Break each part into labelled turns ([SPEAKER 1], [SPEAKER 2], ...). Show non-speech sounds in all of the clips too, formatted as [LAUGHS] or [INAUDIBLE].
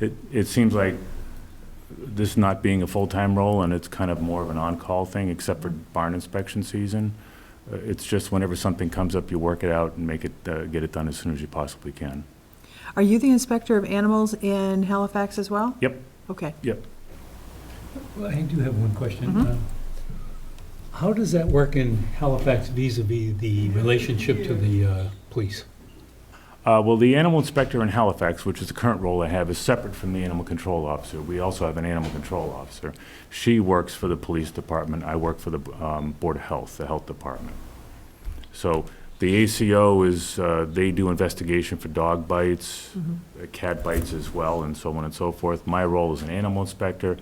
[SPEAKER 1] it, it seems like this not being a full-time role, and it's kind of more of an on-call thing, except for barn inspection season. Uh, It's just whenever something comes up, you work it out and make it, uh, get it done as soon as you possibly can.
[SPEAKER 2] Are you the inspector of animals in Halifax as well?
[SPEAKER 1] Yep.
[SPEAKER 2] Okay.
[SPEAKER 3] Well, I do have one question. Uh, How does that work in Halifax vis-à-vis the relationship to the uh, police?
[SPEAKER 1] Uh, Well, the animal inspector in Halifax, which is the current role I have, is separate from the animal control officer. We also have an animal control officer. She works for the police department, I work for the um, Board of Health, the health department. So the ACO is, uh, they do investigation for dog bites, uh, cat bites as well, and so on and so forth. My role is an animal inspector,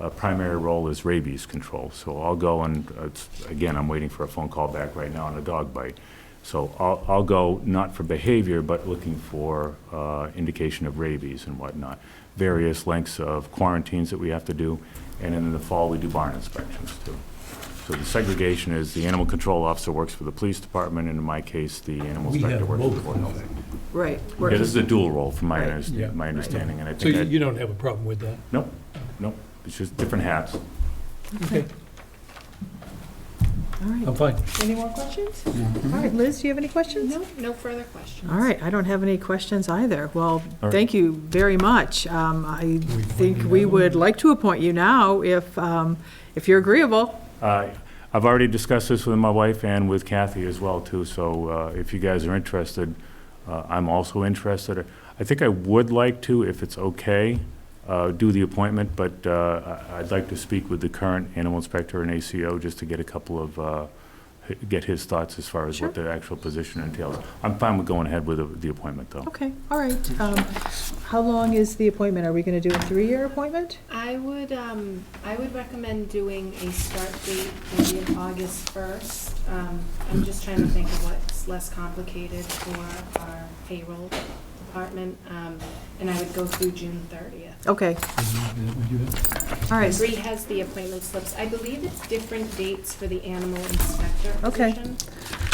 [SPEAKER 1] Uh, primary role is rabies control. So I'll go and, uh, it's- again, I'm waiting for a phone call back right now on a dog bite. So I'll, I'll go not for behavior, but looking for uh, indication of rabies and whatnot, various lengths of quarantines that we have to do, and then in the fall, we do barn inspections too. So the segregation is the animal control officer works for the police department, and in my case, the animal
[SPEAKER 3] We
[SPEAKER 1] inspector
[SPEAKER 3] have
[SPEAKER 1] works for the
[SPEAKER 3] both.
[SPEAKER 1] board of health.
[SPEAKER 2] Right.
[SPEAKER 1] Yeah, this is a dual role from my,
[SPEAKER 2] Right.
[SPEAKER 1] understa-
[SPEAKER 3] Yeah.
[SPEAKER 1] my understanding, and I
[SPEAKER 3] So you
[SPEAKER 1] think
[SPEAKER 3] you
[SPEAKER 1] that,
[SPEAKER 3] don't have a problem with that?
[SPEAKER 1] nope, nope, it's just different hats.
[SPEAKER 3] Okay,
[SPEAKER 2] All right.
[SPEAKER 3] I'm fine.
[SPEAKER 2] Any more questions? All right, Liz, do you have any questions?
[SPEAKER 4] No, no further questions.
[SPEAKER 2] All right, I don't have any questions either. Well,
[SPEAKER 1] right.
[SPEAKER 2] thank you very much. Um, I
[SPEAKER 3] we
[SPEAKER 2] think
[SPEAKER 3] appoint
[SPEAKER 2] we
[SPEAKER 3] you?
[SPEAKER 2] would like to appoint you now if, um, if you're agreeable.
[SPEAKER 1] Uh, I've already discussed this with my wife and with Kathy as well, too, so uh, if you guys are interested, uh, I'm also interested. I think I would like to, if it's okay, uh, do the appointment, but uh, I- I'd like to speak with the current animal inspector and ACO just to get a couple of, uh, h- get his thoughts as far as what the actual position entails. I'm fine with going ahead with the- the appointment, though.
[SPEAKER 2] Okay, all right. Um, How long is the appointment? Are we going to do a three-year appointment?
[SPEAKER 4] I would, um, I would recommend doing a start date maybe of August first. Um, I'm just trying to think of what's less complicated for our payroll department, um, and I would go through June thirtieth.
[SPEAKER 2] Okay,
[SPEAKER 3] Would you have-
[SPEAKER 2] all right.
[SPEAKER 4] Bree has the appointment slips. I believe it's different dates for the animal inspector
[SPEAKER 2] Okay.
[SPEAKER 4] position.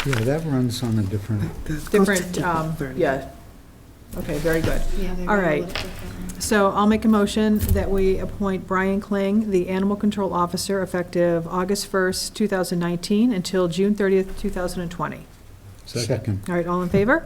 [SPEAKER 5] Yeah, that runs on a different,
[SPEAKER 2] Different, um, yeah. Okay, very good.
[SPEAKER 4] Yeah, they're
[SPEAKER 2] All
[SPEAKER 4] gonna
[SPEAKER 2] right.
[SPEAKER 4] look different.
[SPEAKER 2] So I'll make a motion that we appoint Brian Kling, the Animal Control Officer, effective August 1st, 2019, until June 30th, 2020.
[SPEAKER 5] second.
[SPEAKER 2] All right, all in favor?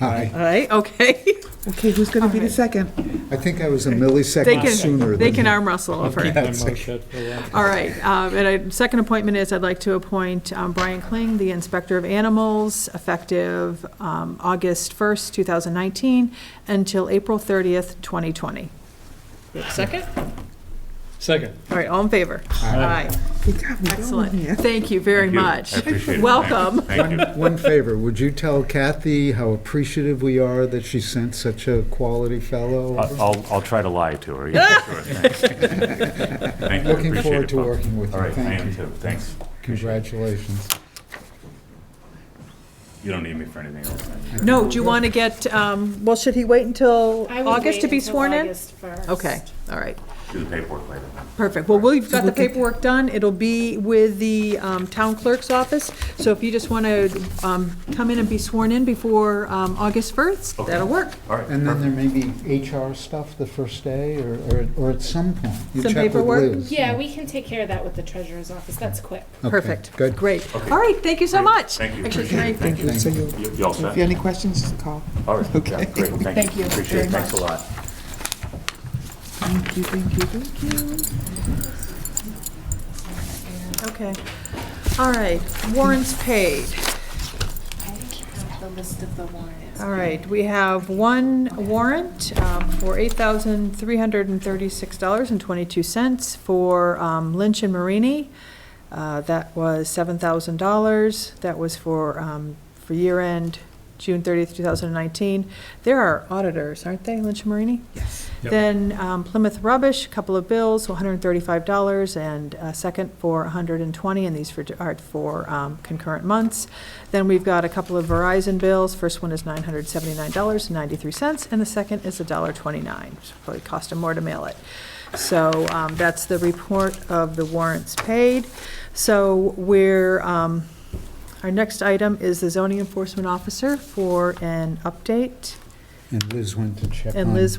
[SPEAKER 5] Aye.
[SPEAKER 2] All right, okay.
[SPEAKER 6] Okay, who's going to be the
[SPEAKER 2] Alright.
[SPEAKER 6] second?
[SPEAKER 5] I think I was a
[SPEAKER 2] They
[SPEAKER 5] millisecond sooner
[SPEAKER 2] can,
[SPEAKER 5] than
[SPEAKER 2] they can
[SPEAKER 5] you.
[SPEAKER 2] arm wrestle
[SPEAKER 3] I'll
[SPEAKER 2] over
[SPEAKER 3] keep
[SPEAKER 2] it.
[SPEAKER 3] my mouth shut for a while.
[SPEAKER 2] All right, um, and I, second appointment is I'd like to appoint um, Brian Kling, the Inspector of Animals, effective um, August 1st, 2019, until April 30th, 2020. Second?
[SPEAKER 3] Second.
[SPEAKER 2] All right, all in favor? Aye.
[SPEAKER 6] Good job, we're going here.
[SPEAKER 2] Excellent. Thank you very
[SPEAKER 1] Thank you.
[SPEAKER 2] much.
[SPEAKER 1] I appreciate it.
[SPEAKER 2] [LAUGHS] Welcome.
[SPEAKER 1] Thank you.
[SPEAKER 5] One favor, would you tell Kathy how appreciative we are that she sent such a quality fellow?
[SPEAKER 1] I- I'll, I'll try to lie to
[SPEAKER 6] [LAUGHS]
[SPEAKER 1] her. yeah, sure, thanks. Thank you, I
[SPEAKER 5] Looking
[SPEAKER 1] appreciate
[SPEAKER 5] forward
[SPEAKER 1] it,
[SPEAKER 5] to
[SPEAKER 1] folks.
[SPEAKER 5] working with
[SPEAKER 1] All
[SPEAKER 5] you.
[SPEAKER 1] right, I am
[SPEAKER 5] Thank you.
[SPEAKER 1] too, thanks.
[SPEAKER 5] Congratulations.
[SPEAKER 1] You don't need me for anything else, man.
[SPEAKER 2] No, do you want to get, um, well, should he wait until
[SPEAKER 4] I would
[SPEAKER 2] August to
[SPEAKER 4] wait
[SPEAKER 2] be
[SPEAKER 4] until
[SPEAKER 2] sworn in?
[SPEAKER 4] August 1st.
[SPEAKER 2] Okay, all right,
[SPEAKER 1] Do the paperwork later.
[SPEAKER 2] perfect. Well, we've got the paperwork done. It'll be with the um, town clerk's office. So if you just want to come in and be sworn in before um, August 1st,
[SPEAKER 1] Okay.
[SPEAKER 2] that'll work.
[SPEAKER 1] All right.
[SPEAKER 5] And then there may be HR stuff the first day or, or- or at some point. You
[SPEAKER 2] Some
[SPEAKER 5] check with
[SPEAKER 2] paperwork?
[SPEAKER 5] Liz.
[SPEAKER 4] Yeah, we can take care of that with the treasurer's office. That's quick.
[SPEAKER 5] Okay,
[SPEAKER 2] Perfect,
[SPEAKER 5] Good.
[SPEAKER 2] great. All right, thank you so much.
[SPEAKER 1] Thank you.
[SPEAKER 2] Actually, can I-
[SPEAKER 6] Thank you. So you,
[SPEAKER 1] You you all
[SPEAKER 6] if
[SPEAKER 1] set?
[SPEAKER 6] you have any questions, just call.
[SPEAKER 1] All right, yeah,
[SPEAKER 6] Okay.
[SPEAKER 1] great, thank
[SPEAKER 6] Thank
[SPEAKER 1] you.
[SPEAKER 6] you
[SPEAKER 1] Appreciate it,
[SPEAKER 6] very
[SPEAKER 1] thanks a lot.
[SPEAKER 6] Thank you, thank you, thank you.
[SPEAKER 2] Okay, all right, warrants paid.
[SPEAKER 4] I have the list of the warrants.
[SPEAKER 2] All right, we have one warrant um, for $8,336.22 for um, Lynch and Marini. Uh, That was $7,000. That was for, um, for year end, June 30th, 2019. There are auditors, aren't they, Lynch and Marini?
[SPEAKER 6] Yes.
[SPEAKER 3] Yep.
[SPEAKER 2] Then um, Plymouth Rubbish, a couple of bills, $135, and a second for 120, and these for, are for um, concurrent months. Then we've got a couple of Verizon bills, first one is $979.93, and the second is $1.29, which probably cost them more to mail it. So um, that's the report of the warrants paid. So we're, um, our next item is the zoning enforcement officer for an update,
[SPEAKER 5] And Liz went to check on.
[SPEAKER 2] and Liz